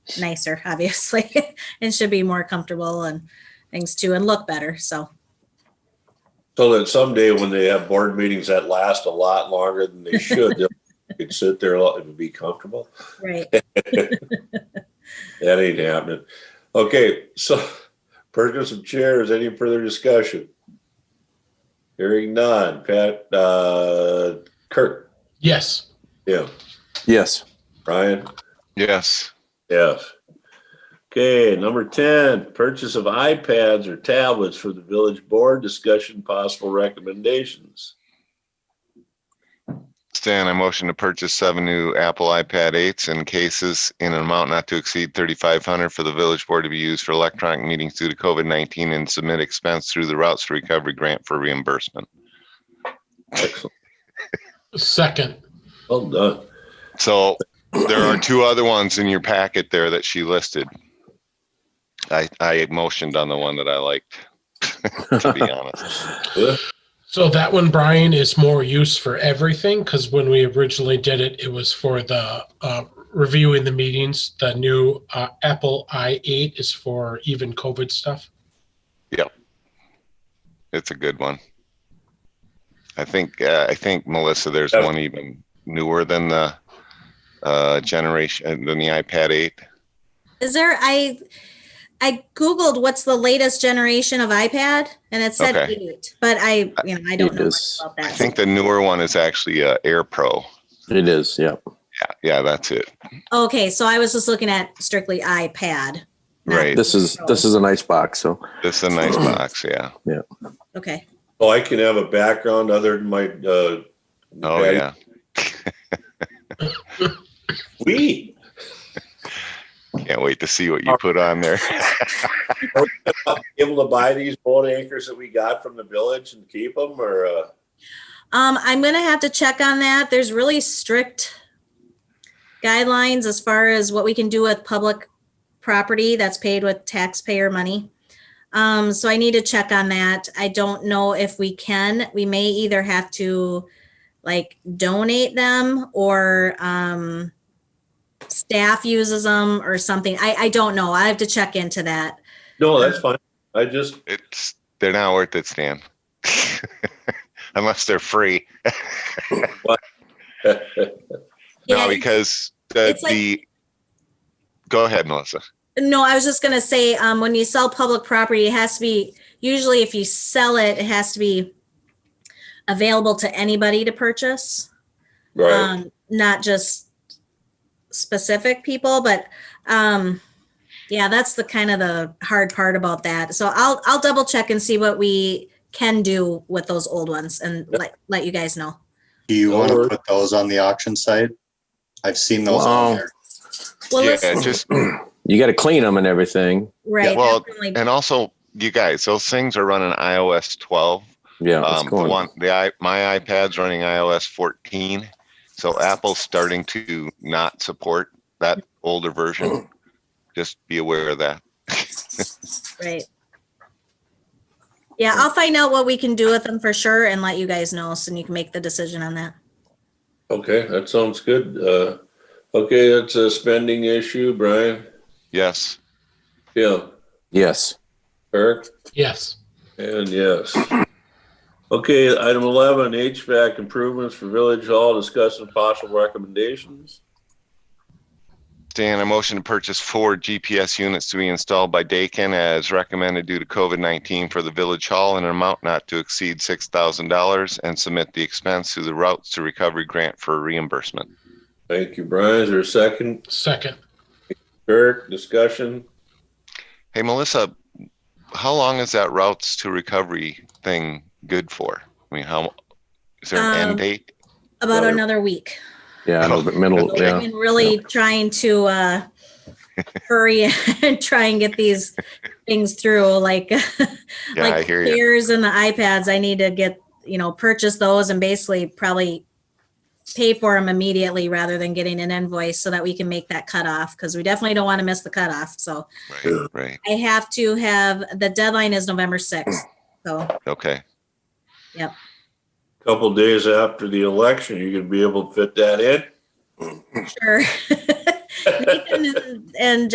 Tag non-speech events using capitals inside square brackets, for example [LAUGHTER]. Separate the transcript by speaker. Speaker 1: [LAUGHS] nicer, obviously, [LAUGHS] and should be more comfortable and things too, and look better. So
Speaker 2: So that someday when they have board meetings that last a lot longer than they should, they'll- they could sit there and be comfortable.
Speaker 1: right,
Speaker 2: That ain't happening. Okay, so purchase of chairs, any further discussion? Hearing none. Pat, uh, Kurt,
Speaker 3: Yes.
Speaker 2: Tim,
Speaker 4: Yes.
Speaker 2: Brian,
Speaker 5: Yes.
Speaker 2: yes. Okay, number ten, purchase of iPads or tablets for the village board, discussion possible recommendations.
Speaker 5: Stan, I motion to purchase seven new Apple iPad eights and cases in an amount not to exceed thirty-five hundred for the village board to be used for electronic meetings due to COVID nineteen and submit expense through the routes to recovery grant for reimbursement.
Speaker 2: Excellent.
Speaker 3: Second.
Speaker 2: Well done.
Speaker 5: So there are two other ones in your packet there that she listed. I, I motioned on the one that I liked, [LAUGHS] to be honest.
Speaker 3: So that one, Brian, is more use for everything because when we originally did it, it was for the uh, reviewing the meetings. The new uh, Apple i8 is for even COVID stuff.
Speaker 5: It's a good one. I think, uh, I think Melissa, there's
Speaker 2: Yeah.
Speaker 5: one even newer than the, uh, generation, than the iPad eight.
Speaker 1: is there? I I googled what's the latest generation of iPad, and it said
Speaker 5: Okay.
Speaker 1: eight, but I you know I don't
Speaker 4: It
Speaker 1: know much
Speaker 4: is-
Speaker 1: about
Speaker 5: I
Speaker 1: that.
Speaker 5: think the newer one is actually, uh, Air Pro.
Speaker 4: It is. Yeah.
Speaker 5: Yeah, yeah, that's it.
Speaker 1: okay, so I was just looking at strictly iPad. not-
Speaker 5: Right.
Speaker 4: This is this is a nice box. So
Speaker 5: It's a [CLEARS THROAT] nice box, yeah.
Speaker 1: Okay.
Speaker 2: Oh, I can have a background other than my, uh.
Speaker 5: Oh, yeah.
Speaker 2: We,
Speaker 5: Can't wait to see what you put on [LAUGHS] there.
Speaker 2: able to buy these boat anchors that we got from the village and keep them or, uh,
Speaker 1: Um, I'm gonna have to check on that. There's really strict guidelines as far as what we can do with public property that's paid with taxpayer money. Um, so I need to check on that. I don't know if we can. We may either have to like donate them or um staff uses them or something. I, I don't know. I have to check into that.
Speaker 2: no, that's fine. I just,
Speaker 5: It's, they're not worth it, Stan. [LAUGHS] Unless they're free.
Speaker 1: Yeah,
Speaker 5: No, because the,
Speaker 1: it's like-
Speaker 5: the, go ahead, Melissa.
Speaker 1: No, I was just gonna say, um, when you sell public property, it has to be, usually if you sell it, it has to be available to anybody to purchase.
Speaker 2: right,
Speaker 1: Um, not just specific people, but, um, yeah, that's the kind of the hard part about that. So I'll, I'll double check and see what we can do with those old ones and let, let you guys know.
Speaker 6: Do you
Speaker 2: Don't
Speaker 6: want
Speaker 2: worry.
Speaker 6: to put those on the auction site? I've seen those
Speaker 4: Wow.
Speaker 6: on there.
Speaker 1: Well,
Speaker 5: Yeah,
Speaker 1: listen,
Speaker 5: just,
Speaker 4: you got to clean them and everything.
Speaker 1: right.
Speaker 5: well,
Speaker 1: definitely.
Speaker 5: and also, you guys, those things are running iOS twelve.
Speaker 4: Yeah.
Speaker 5: Um,
Speaker 4: It's
Speaker 5: the
Speaker 4: going.
Speaker 5: one, the, i- my iPad's running iOS fourteen. So Apple's starting to not support that older version. Just be aware of that.
Speaker 1: Right. Yeah, I'll find out what we can do with them for sure and let you guys know, so you can make the decision on that.
Speaker 2: okay, that sounds good. Uh, okay, that's a spending issue, Brian.
Speaker 5: Yes,
Speaker 2: Yeah,
Speaker 4: Yes.
Speaker 2: Eric,
Speaker 3: Yes.
Speaker 2: and yes. Okay, item eleven, HVAC improvements for Village Hall, discussing possible recommendations.
Speaker 5: Dan, I motion to purchase four GPS units to be installed by Dakin as recommended due to COVID-19 for the village hall in an amount not to exceed $6,000 and submit the expense to the routes to recovery grant for reimbursement.
Speaker 2: Thank you, Brian. Is there a second?
Speaker 3: Second.
Speaker 2: Eric, discussion?
Speaker 5: Hey, Melissa, how long is that routes to recovery thing good for? I mean, how, is there an
Speaker 1: Um,
Speaker 5: end date?
Speaker 1: About
Speaker 2: Right.
Speaker 1: another week.
Speaker 4: Yeah. no, but middle.
Speaker 1: I've
Speaker 4: Yeah.
Speaker 1: been really trying to
Speaker 4: [LAUGHS]
Speaker 1: uh hurry and try and get these things through, like [LAUGHS]
Speaker 5: Yeah, I
Speaker 1: like
Speaker 5: hear you.
Speaker 1: chairs and the iPads. I need to get, you know, purchase those and basically probably pay for them immediately rather than getting an invoice so that we can make that cutoff, because we definitely don't want to miss the cutoff, so.
Speaker 5: Right, right.
Speaker 1: I have to have, the deadline is November 6th. So,
Speaker 5: Okay.
Speaker 2: Couple days after the election, you [LAUGHS] gonna be able to fit that in?
Speaker 1: sure. Nathan and- And